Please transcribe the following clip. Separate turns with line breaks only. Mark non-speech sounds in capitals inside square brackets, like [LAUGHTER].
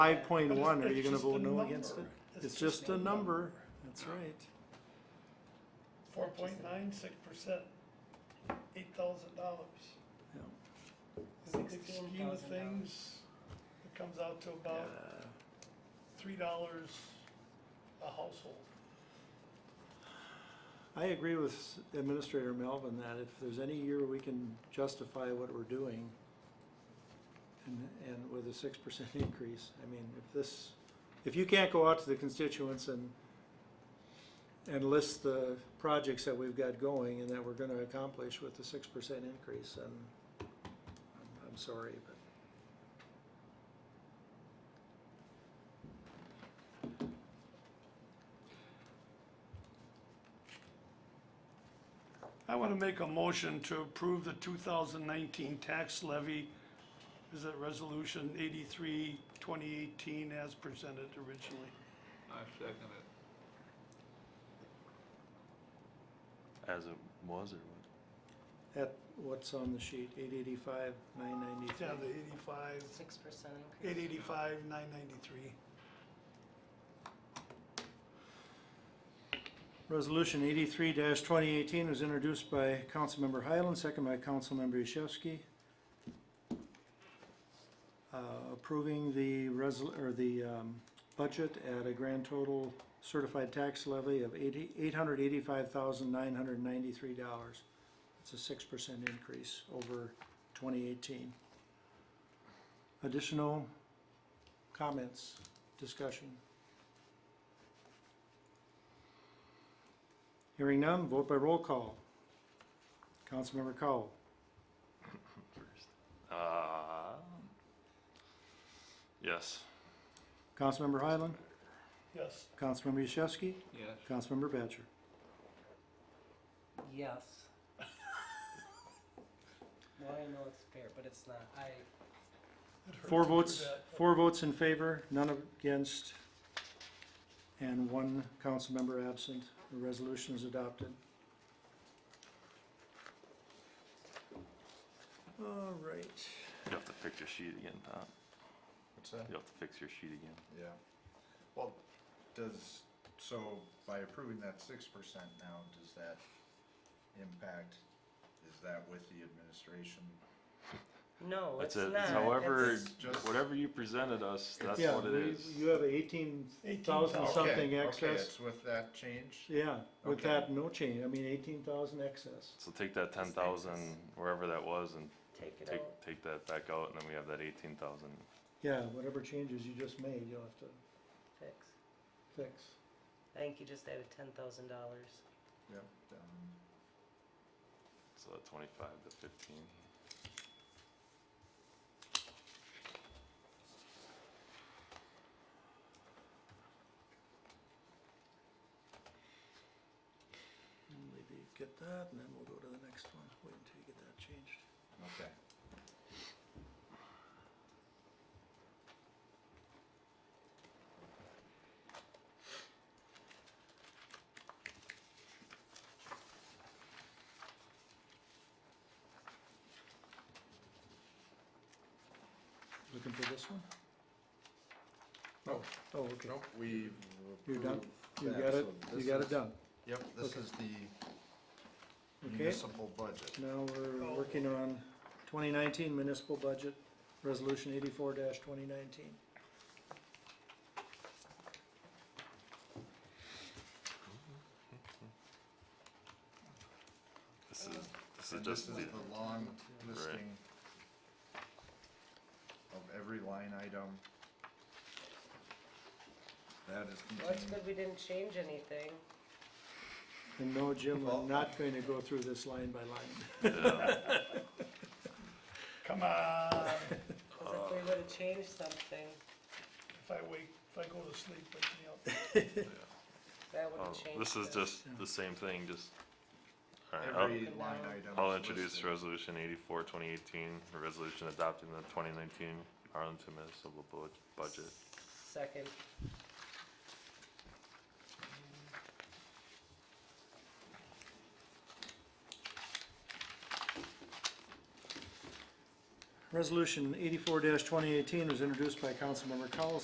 Five point one,
But
are
it's-
you
it's
gonna
just a
vote no
number.
against it?
It's
It's
just
just
a
a
number.
number, that's right.
Four point nine six percent, eight thousand dollars.
Yeah.
In the big scheme of
$64,000.
things, it comes out to about
Uh,
three dollars a household.
I agree with Administrator Melvin that if there's any year we can justify what we're doing and, and with a six percent [LAUGHS] increase, I mean, if this, if you can't go out to the constituents and and list the projects that we've got going and that we're gonna accomplish with the six percent increase, then I'm, I'm sorry, but
I wanna make a motion to approve the two thousand nineteen tax levy. Is that resolution eighty-three, twenty eighteen as presented originally?
I second it.
As it was or what?
at what's on the sheet, eight eighty-five, nine ninety-three.
Yeah, the eighty-five,
Six percent
eight
increase.
eighty-five, nine ninety-three.
Resolution eighty-three twenty eighteen was introduced by Councilmember Highland, second by Councilmember Yashewski. Uh, approving the resol, or the, um, budget at a grand total certified tax levy of eighty, eight hundred eighty-five thousand nine hundred ninety-three dollars. It's a six percent increase over twenty eighteen. Additional comments, discussion? Hearing none, vote by roll call. Councilmember Cowell,
First. Uh, yes.
Councilmember Highland,
Yes,
Councilmember Yashewski,
Yes.
Councilmember Batchor.
Yes. [LAUGHS] Well, I know it's fair, but it's not. I,
Four
to do
votes,
that.
four votes in favor, none against, and one council member absent. The resolution is adopted. All right.
You have to fix your sheet again, Tom.
What's that?
You have to fix your sheet again.
Yeah. Well, does, so by approving that six percent now, does that impact, is that with the administration?
no, it's
That's
not.
it. However,
It's-
just-
whatever you presented us, that's
Yeah,
what it
we-
is.
You have eighteen thousand
Okay,
something
Okay,
excess.
it's with that change?
Yeah, with
Okay.
that, no change. I mean, eighteen thousand excess.
So take that ten thousand, wherever that was, and
Take it
take,
out.
take that back out, and then we have that eighteen thousand.
Yeah, whatever changes you just made, you'll have to
Fix.
fix.
I think you just added ten thousand dollars.
Yep, um,
So twenty-five to fifteen.
Maybe get that, and then we'll go to the next one, wait until you get that changed.
okay.
Looking for this one?
Oh,
Oh, okay,
nope, we.
You're done?
approved
you
that,
got it,
so
you
this
got
is-
it done.
Yep, this
Okay.
is the
Okay,
municipal budget.
now we're working on twenty nineteen municipal budget, resolution eighty-four twenty nineteen.
This is, this is
And this
just
is
the,
the long listing of every line item that is
Well, it's
contained.
good we didn't change anything.
And no, Jim,
Well-
I'm not going to go through this line by line.
Come on. [LAUGHS]
Cause if we
Uh.
would've changed something,
If I wake, if I go to sleep, wake me up.
that
[LAUGHS] oh,
would've changed.
this is
it.
just the same thing, just. Alright, I'll-
Every line item.
I'll
is
introduce
listed.
resolution eighty-four, twenty eighteen, a resolution adopting the twenty nineteen Arlington municipal Bu- budget.
Second,
Resolution eighty-four twenty eighteen was introduced by Councilmember Cowell,